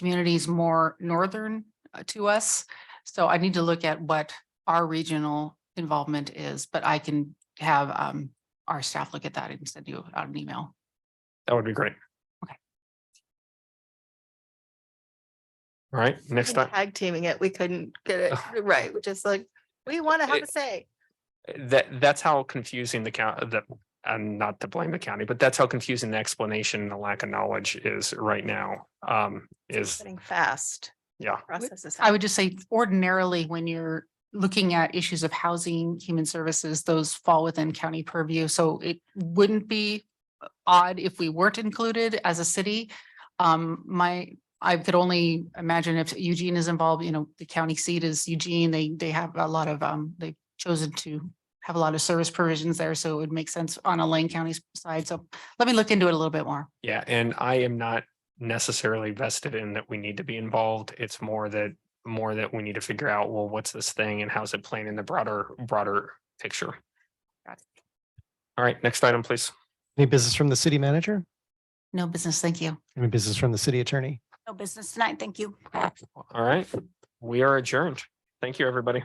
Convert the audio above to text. communities more northern uh, to us. So I need to look at what our regional involvement is, but I can have um our staff look at that and send you out an email. That would be great. Okay. All right, next even time, Tag teaming it, we couldn't get it right, which is like, we want to have a It- say. that, that's how confusing the county, the, and not to blame the county, but that's how confusing the explanation and the lack of knowledge is right now. Um, is, Getting fast. yeah, Processes. I would just say ordinarily, when you're looking at issues of housing, human services, those fall within county purview. So it wouldn't be odd if we weren't included as a city. Um, my, I could only imagine if Eugene is involved, you know, the county seat is Eugene, they, they have a lot of, um, they've chosen to have a lot of service provisions there, so it would make sense on a Lane County side. So let me look into it a little bit more. yeah, and I am not necessarily vested in that we need to be involved. It's more that, more that we need to figure out, well, what's this thing and how's it playing in the broader, broader picture? Got it. All right, next item, please. Any business from the city manager? No business, thank you. Any business from the city attorney? No business tonight, thank you. All right, we are adjourned. Thank you, everybody.